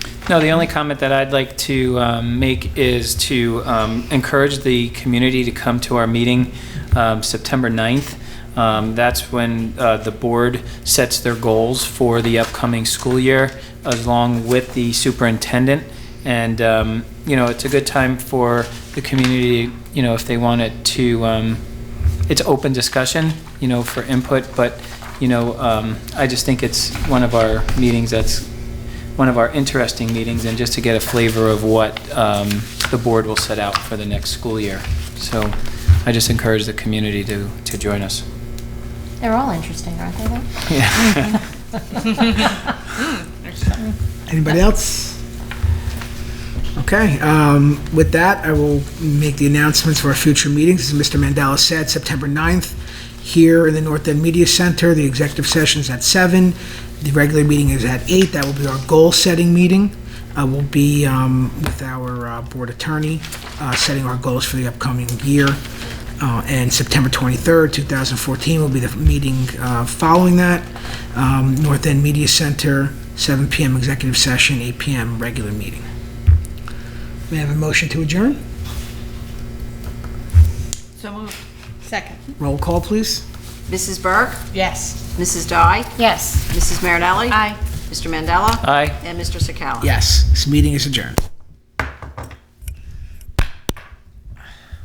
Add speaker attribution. Speaker 1: No, the only comment that I'd like to um, make is to um, encourage the community to come to our meeting um, September 9th. Um, That's when uh, the board sets their goals for the upcoming school year, along with the superintendent. And, um, you know, it's a good time for the community, you know, if they wanted to, um, it's open discussion, you know, for input, but, you know, um, I just think it's one of our meetings that's one of our interesting meetings and just to get a flavor of what um, the board will set out for the next school year. So I just encourage the community to, to join us.
Speaker 2: They're all interesting, aren't they, though?
Speaker 1: Yeah.
Speaker 3: Anybody else? Okay, um, with that, I will make the announcements for our future meetings. As Mr. Mandela said, September 9th, here in the North End Media Center, the executive session's at seven. The regular meeting is at eight. That will be our goal-setting meeting. Uh, We'll be um, with our uh, board attorney, uh, setting our goals for the upcoming year. Uh, And September 23rd, 2014 will be the meeting uh, following that. Um, North End Media Center, 7 PM executive session, 8 PM regular meeting. May I have a motion to adjourn?
Speaker 4: So moved.
Speaker 2: Second.
Speaker 3: Roll call, please.
Speaker 5: Mrs. Burke,
Speaker 4: Yes.
Speaker 5: Mrs. Dye,
Speaker 2: Yes.
Speaker 5: Mrs. Marinelli.
Speaker 4: Aye.
Speaker 5: Mr. Mandela.
Speaker 1: Aye.
Speaker 5: And Mr. Sakala.
Speaker 3: Yes, this meeting is adjourned.